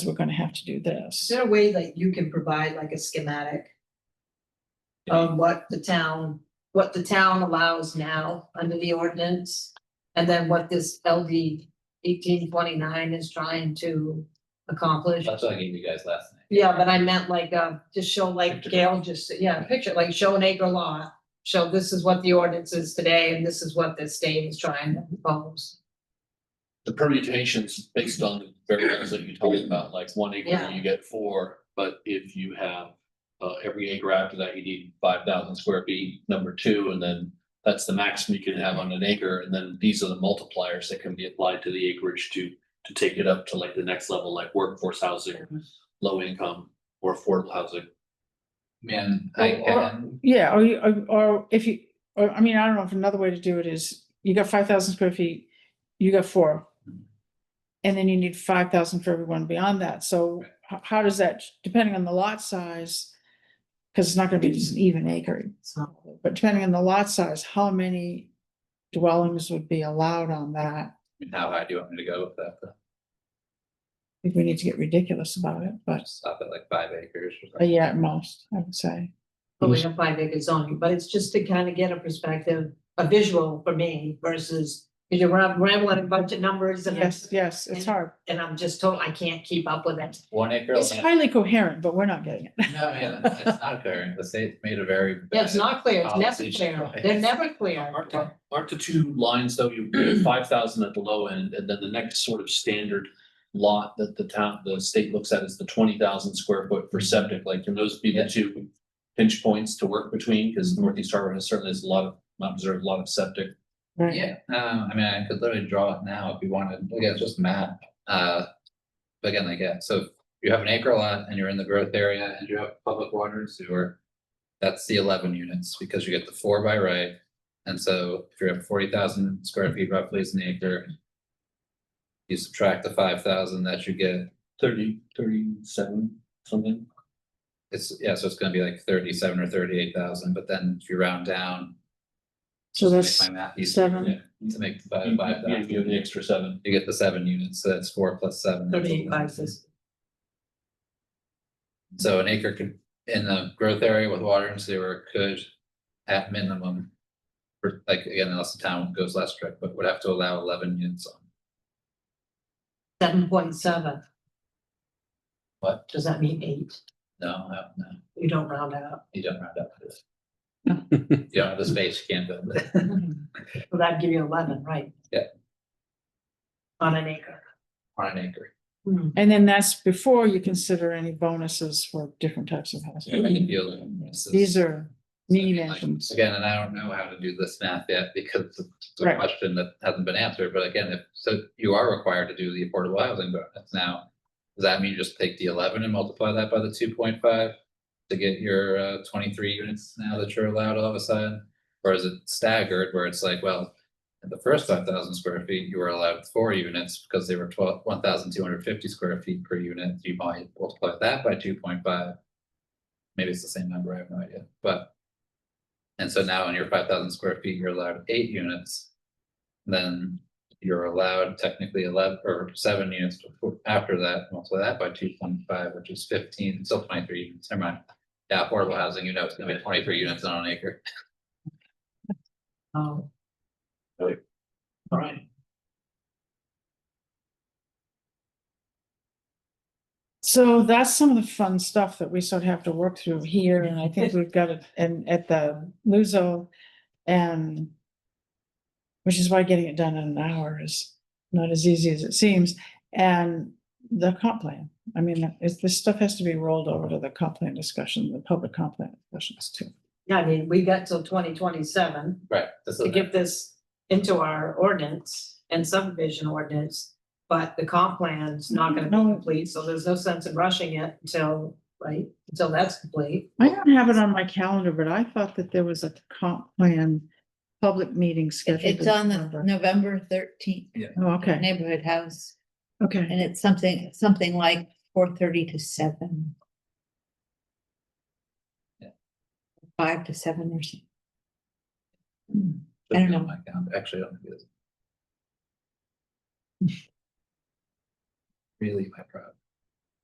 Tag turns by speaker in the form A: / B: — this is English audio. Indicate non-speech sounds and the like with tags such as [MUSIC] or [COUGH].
A: we're gonna have to do this.
B: Is there a way that you can provide like a schematic? Of what the town, what the town allows now under the ordinance? And then what this LD eighteen twenty-nine is trying to accomplish?
C: That's what I gave you guys last night.
B: Yeah, but I meant like, uh, just show like Gail just, said- yeah, picture, like show an acre lot. Show this is what the ordinance is today and this is what the state is trying to propose.
D: the permutations based on the variables that you talked about, like one
B: Yeah.
D: acre, you get four, but if you have. Uh, every acre after that, you need five thousand square feet, number two, and then that's the maximum you can have on an acre, and then these are the multipliers that can be applied to the acreage to. To take it up to like the next level, like workforce housing, low income or affordable housing.
C: Man, I,
A: Or- or-
C: and
A: Yeah, or you, or- or if you, or, I mean, I don't know if another way to do it is, you got five thousand square feet, you got four. And then you need five thousand for everyone beyond that, so how, how does that, depending on the lot size? Cause it's not gonna be just an even acre,
B: So,
A: but depending on the lot size, how many dwellings would be allowed on that?
C: how high do you want me to go with that? though?
A: I think we need to get ridiculous about it, but,
C: Stop at like five acres or
A: uh,
C: something.
A: yeah, at most, I would say.
B: But we don't find acre zoning, but it's just to kind of get a perspective, a visual for me versus, because you're ram- rambling a bunch of numbers and
A: Yes, yes, it's hard,
B: and I'm just told I can't keep up with it.
C: One acre.
A: it's
C: land-
A: highly coherent, but we're not getting it.
C: No, man, it's not fair. The state's made a very.
B: Yeah, it's not clear, it's never
C: Policy
B: clear,
C: choice.
B: they're never clear.
D: Aren't the, aren't the two lines though, you five thousand at the low end, and then the next sort of standard lot that the town, the state looks at is the twenty thousand square foot for septic, like, can those be
C: Yeah.
D: the two pinch points to work between, because Northeast Harbor has certainly has a lot of, not observed a lot of septic.
A: Right.
C: Yeah, um, I mean, I could literally draw it now if you wanted, look at just a map, uh. But again, like, yeah, so if you have an acre lot and you're in the growth area and you have public water and sewer. That's the eleven units, because you get the four by right, and so if you're at forty thousand square feet roughly is an acre. You subtract the five thousand that you get,
D: Thirty, thirty-seven, something.
C: it's, yeah, so it's gonna be like thirty-seven or thirty-eight thousand, but then if you round down.
A: So
C: to make
A: that's
C: my math easier,
A: seven.
C: yeah, To make the five,
D: You-
C: five
D: you- You have the
C: thousand,
D: extra seven.
C: you get the seven units, so that's four plus seven. that's
B: Thirty-eight
C: 11.
B: boxes.
C: So an acre could, in the growth area with water and sewer could, at minimum. For like, again, unless the town goes less strict, but would have to allow eleven units on.
B: seven point seven,
C: What?
B: does that mean eight?
C: No, no, no,
B: You don't round out.
C: you don't round up. You don't have the space, you can't build it.
B: Well, that'd give you eleven, right?
C: Yeah.
B: On an acre.
C: on an acre.
B: Hmm.
A: And then that's before you consider any bonuses for different types of
C: You can
A: housing.
C: build it. This is-
A: These are mean
C: I mean, like,
A: engines.
C: Again, and I don't know how to do this math yet because it's a
A: Right.
C: question that hasn't been answered, but again, if, so you are required to do the affordable housing bonus now. Does that mean you just take the eleven and multiply that by the two point five to get your uh twenty-three units now that you're allowed all of a sudden? Or is it staggered where it's like, well, in the first five thousand square feet, you were allowed four units because they were twelve, one thousand two hundred fifty square feet per unit, you might multiply that by two point five. Maybe it's the same number, I have no idea, but and so now in your five thousand square feet, you're allowed eight units. Then you're allowed technically eleven or seven units before, after that, multiply that by two point five, which is fifteen, it's still twenty-three units, never mind. Yeah, affordable housing, you know, it's gonna be twenty-three units on an acre.
B: Oh,
D: All right.
A: So that's some of the fun stuff that we sort of have to work through here, and I think we've got it and at the Luso and which is why getting it done in an hour is not as easy as it seems, and the comp plan. I mean, it's, this stuff has to be rolled over to the comp plan discussion, the public comp plan discussions too.
B: yeah, I mean, we got till twenty twenty-seven.
C: Right. This
B: to
C: is,
B: get this into our ordinance and subdivision ordinance. But the comp plan's not gonna be
A: No.
B: complete, so there's no sense in rushing it until, right, until that's complete.
A: I don't have it on my calendar, but I thought that there was a comp plan public meeting scheduled.
E: It's on the November thirteenth
A: Oh, okay,
E: neighborhood house,
A: okay.
E: and it's something, something like four thirty to seven.
C: Yeah.
E: Five to seven or something.
C: should
E: I don't
C: be on
E: know.
C: my calendar. Actually, I don't
E: [LAUGHS]
C: think it is. Really my problem.